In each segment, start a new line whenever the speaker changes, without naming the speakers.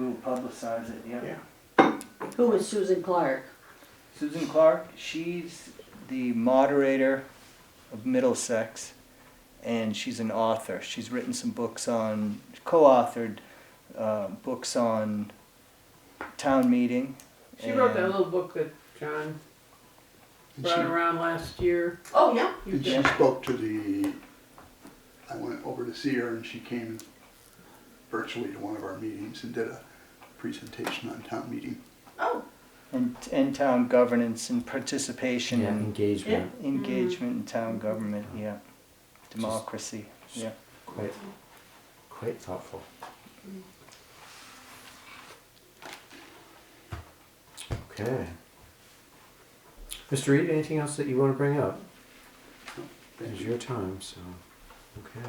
publicize it, yeah.
Yeah.
Who was Susan Clark?
Susan Clark, she's the moderator of Middlesex, and she's an author. She's written some books on, co authored uh, books on town meeting.
She wrote that
and-
little book that John
And
brought
she,
around last year.
Oh, yeah.
and she spoke to the, I went over to see her and she came virtually to one of our meetings and did a presentation on town meeting.
Oh,
And, and town governance and participation
Yeah,
and
engagement.
engagement in town government, yeah. Democracy, yeah.
Quite, quite thoughtful. Okay. Mr. Reed, anything else that you want to bring up? It is your time, so, okay.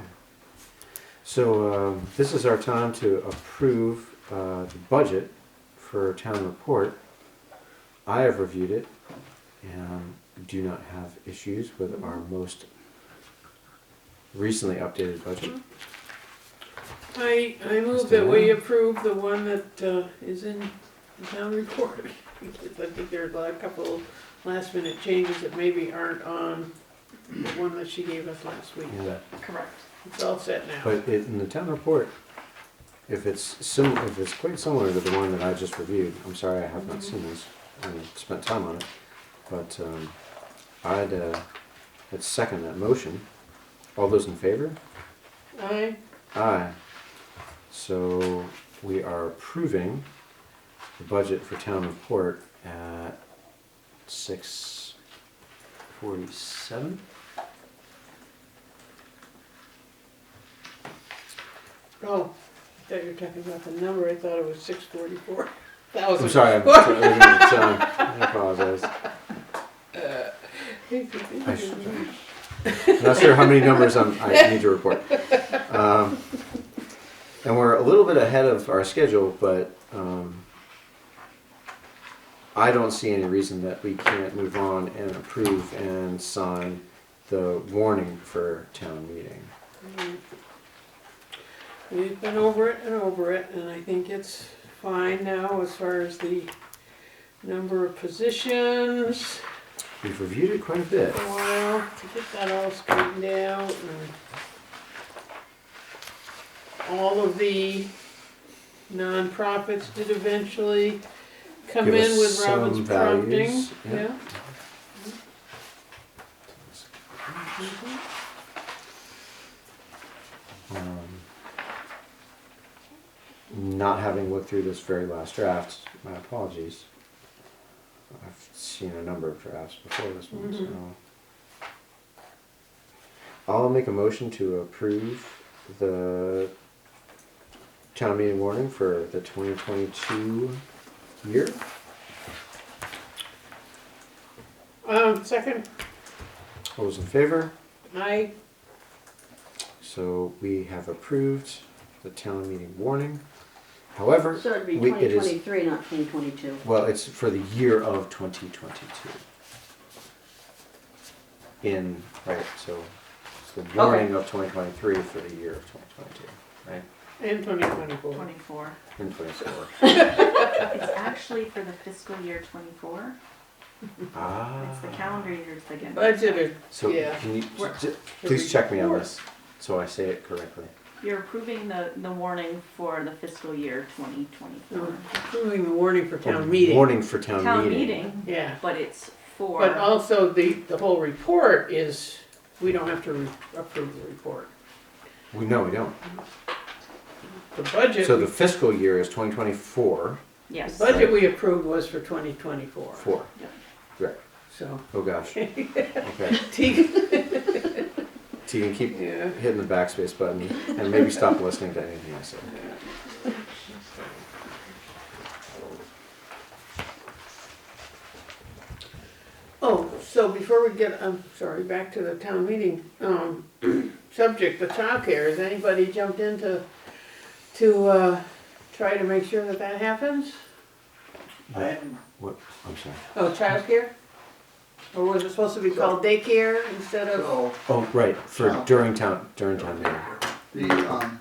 So um, this is our time to approve uh, the budget for town report. I have reviewed it and do not have issues with our most recently updated budget.
I, I move that we approve the one that uh, is in the town report. Because I think there are a lot- a couple last minute changes that maybe aren't on the one that she gave us last week.
Yeah, that-
correct.
It's all set now.
But it- in the town report, if it's sim, if it's quite similar to the one that I just reviewed, I'm sorry I have not seen this, I spent time on it, but um, I'd, uh, I'd second that motion. All those in favor?
Aye.
Aye. So we are approving the budget for town report at six forty-seven?
Oh, I thought you were talking about the number. I thought it was six forty-four thousand.
I'm sorry, I'm sorry, I apologize. I sh- I'm not sure how many numbers I'm, I need to report. Um, and we're a little bit ahead of our schedule, but um, I don't see any reason that we can't move on and approve and sign the warning for town meeting.
We've been over it and over it, and I think it's fine now as far as the number of positions.
We've reviewed it quite a bit.
A while to get that all straightened out and all of the nonprofits did eventually come
Give
in
us
with Robin's
some
prompting.
values, yeah.
Yeah.
Um, not having looked through this very last draft, my apologies. I've seen a number of drafts before this one, so. I'll make a motion to approve the town meeting warning for the 2022 year.
Um, second,
All those in favor?
I,
So we have approved the town meeting warning. However,
So it'd be
we- it is
2023, not 2022.
Well, it's for the year of 2022. In, right, so it's the warning of 2023 for the year of 2022, right?
and twenty twenty-four.
Twenty-four.
And 24.
It's actually for the fiscal year twenty-four. It's the
Ah.
calendar year to begin. with.
Budgeted,
So
Yeah.
can you,
We're-
j- please check me on this, so I say it correctly.
You're approving the, the warning for the fiscal year twenty twenty-four.
approving the warning for
Or
town meeting.
Warning for town
Town
meeting.
meeting,
Yeah.
but it's for,
But also, the, the whole report is, we don't have to re- approve the report.
We, no, we don't.
The budget,
So the fiscal year is 2024,
the
yes.
budget we approved was for twenty twenty-four,
four.
Yep.
Right,
so.
oh gosh. Okay, so you can keep
Yeah,
hitting the backspace button and maybe stop listening to anything I say.
oh, so before we get, I'm sorry, back to the town meeting, um, subject, the childcare, has anybody jumped in to, to, uh, try to make sure that that happens?
I haven't
What? I'm sorry.
Oh, childcare? Or was it supposed to be called daycare instead of?
So,
Oh, right. For during town during town meeting.
the, um,